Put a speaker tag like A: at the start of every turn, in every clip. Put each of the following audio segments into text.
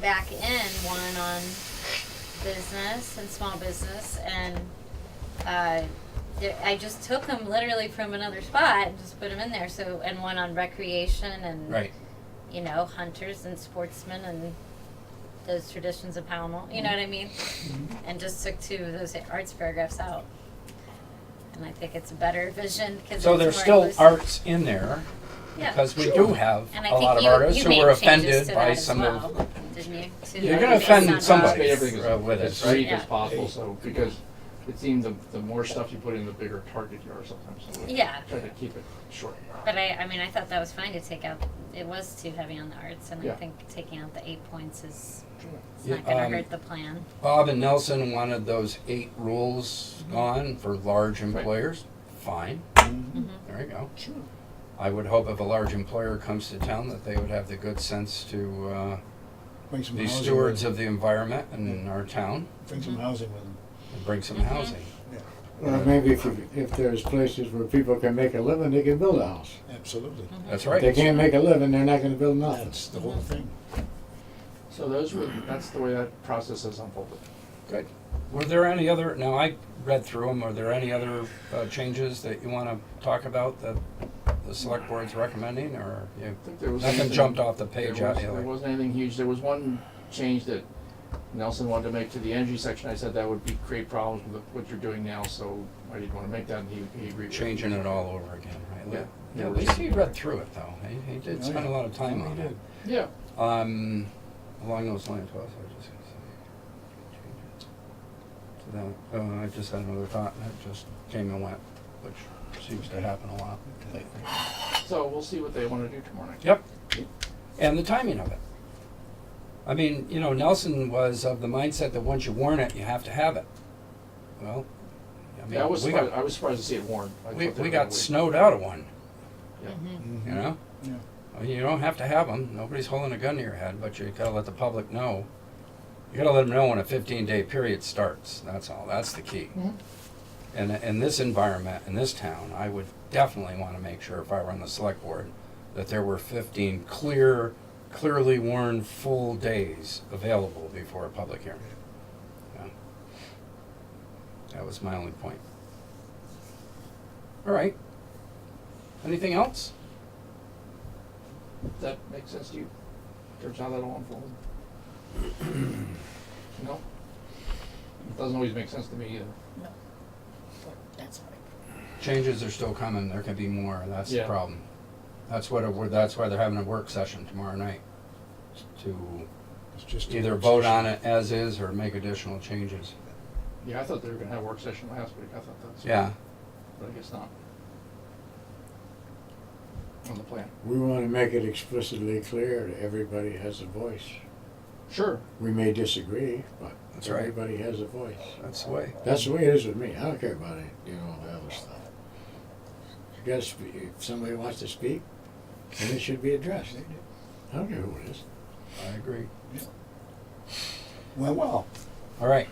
A: back in one on business and small business, and uh, there- I just took them literally from another spot and just put them in there. So and one on recreation and
B: Right.
A: you know hunters and sportsmen and those traditions of Pownell. You know what I mean?
B: Mm-hmm.
A: And just took two of those arts paragraphs out. And I think it's a better vision because
B: So
A: it's
B: there's
A: more
B: still
A: inclusive.
B: arts in there
A: Yeah.
B: because we do have
A: And I
B: a lot
A: think
B: of
A: you,
B: artists
A: you
B: who
A: made
B: were
A: changes
B: offended
A: to
B: by
A: that as
B: some
A: well,
B: of.
A: didn't you? To
B: You're
A: like
B: gonna
A: based on
B: offend
C: Basically,
B: somebody
C: everything is-
B: uh, with
C: As
B: it,
C: unique
B: right?
A: Yeah.
C: as possible, so, because it seemed the, the more stuff you put in, the bigger target you are sometimes. so we
A: Yeah.
C: Try to keep it short.
A: But I, I mean, I thought that was fine to take out. It was too heavy on the arts, and I
C: Yeah.
A: think taking out the eight points is it's
B: Yeah,
A: not going to
B: um,
A: hurt the plan.
B: Bob and Nelson wanted those eight rules gone for large employers. Fine,
A: Mm-hmm.
B: there you go.
C: Sure.
B: I would hope if a large employer comes to town that they would have the good sense to uh,
D: Bring some
B: be
D: housing
B: stewards
D: with
B: of the environment and in our town
D: them. Bring some housing with them.
B: and bring some
A: Mhm.
B: housing.
E: Well, maybe if, you- if there's places where people can make a living, they can build a house.
D: Absolutely.
B: That's
E: If they
B: right.
E: can't make a living, they're not gonna build nothing.
D: That's the whole thing.
C: So those were, that's the way that process has unfolded.
B: Good. Were there any other, now I read through them, were there any other uh, changes that you want to talk about that the select board's recommending or you?
C: I think there was.
B: Nothing
C: anything-
B: jumped off the
C: There
B: page out
C: was-
B: here.
C: there wasn't anything huge. There was one change that Nelson wanted to make to the energy section. I said that would be, create problems with what you're doing now, so I didn't want to make that, and he, he agreed. with me.
B: changing it all over again,
C: Yeah.
B: right? Yeah, at least he read through it though. He- He did
D: Oh,
B: spend a
D: yeah.
B: lot of time on it.
C: Yeah,
B: Um, along those lines, what was I just gonna say? So that, uh, I just had another thought and it just came and went, which seems to happen a lot lately.
C: so we'll see what they want to do tomorrow night.
B: Yep. And the timing of it. I mean, you know, Nelson was of the mindset that once you warn it, you have to have it. Well, I
C: Yeah, I
B: mean,
C: was
B: we
C: surprised,
B: got,
C: I was surprised to see it warned. I
B: we,
C: thought they
B: we
C: were
B: got
C: gonna wait.
B: snowed out of one,
D: Mhm.
B: you know?
D: Yeah.
B: I mean, you don't have to have them, nobody's holding a gun to your head, but you gotta let the public know. You gotta let them know when a fifteen day period starts, that's all, that's the key.
C: Mhm.
B: And, in this environment, in this town, I would definitely wanna make sure if I were on the select board, that there were fifteen clear, clearly warned full days available before a public hearing. Yeah. That was my only point. All right. Anything else?
C: That makes sense to you? Turns out that all unfolded? No? It Doesn't always make sense to me either.
F: That's right.
B: Changes are still coming, there could be more, that's the
C: Yeah.
B: problem. That's what, it- that's why they're having a work session tomorrow night, to
D: It's just a
B: either
D: work
B: vote
D: session.
B: on it as is or make additional changes.
C: Yeah, I thought they were gonna have a work session last week. I thought that's.
B: Yeah,
C: But I guess not. On the plan.
E: We wanna make it explicitly clear that everybody has a voice.
C: Sure.
E: We may disagree, but
B: That's right.
E: everybody has a voice.
B: that's the way.
E: That's the way it is with me. I don't care about it, you know, the other stuff. You gotta speak, if somebody wants to speak, then it should be addressed. I don't care who it is.
B: I agree.
D: Went well.
B: All right,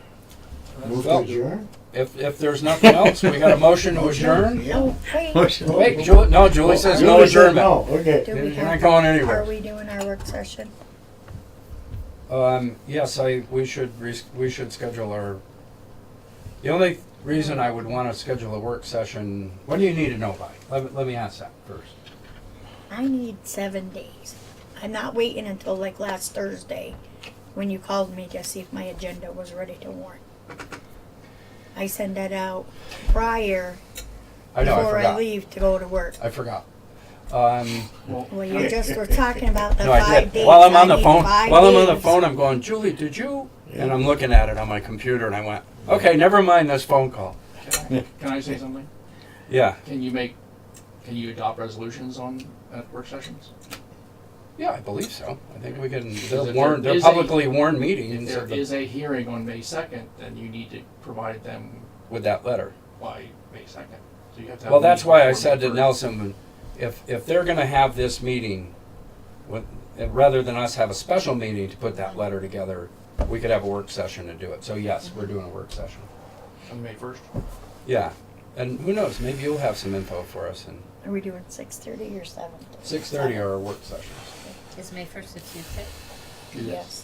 E: Move to
B: Uh, Well-
E: adjourn?
B: if, if there's nothing else, we got a motion to adjourn?
F: Oh,
D: Yeah.
B: Oh, Wait, Julie, no, Julie says no
E: Julie said
B: adjournment.
E: No, okay.
F: Do
B: You're
F: we
B: not
F: have,
B: going
F: are
B: anywhere.
F: we doing our work session?
B: Um, yes, I, we should, res- we should schedule our, the only reason I would wanna schedule a work session, what do you need to know by? Let, me- let me ask that first.
F: I need seven days. I'm not waiting until like last Thursday when you called me to see if my agenda was ready to warn. I send that out prior
B: I know, I
F: before I
B: forgot.
F: leave to go to work.
B: I forgot. Um,
F: Well, you just were talking about the
B: no, I
F: five
B: did.
F: days.
B: While I'm on the
F: need
B: phone,
F: five
B: while I'm on the
F: days.
B: phone, I'm going, Julie, did you? And I'm looking at it on my computer, and I went, okay, never mind this phone call.
C: Can I say something?
B: Yeah,
C: Can you make, can you adopt resolutions on, at work sessions?
B: yeah, I believe so. I think we can.
C: Because if
B: They're
C: there
B: warned. They're
C: is a-
B: publicly warned
C: If
B: meetings
C: there
B: of the,
C: is a hearing on May second, then you need to provide them
B: with that letter.
C: by May second. So you have to have.
B: Well,
C: a
B: that's
C: meeting
B: why I
C: before
B: said
C: May
B: to
C: 1st.
B: Nelson, if if they're going to have this meeting, with, and rather than us have a special meeting to put that letter together, we could have a work session to do it. So yes, we're doing a work session.
C: On May first.
B: Yeah, and who knows? Maybe you'll have some info for us and.
F: Are we doing six thirty or seven?
B: Six thirty are our work sessions.
A: Is May first a Tuesday?
F: Yes.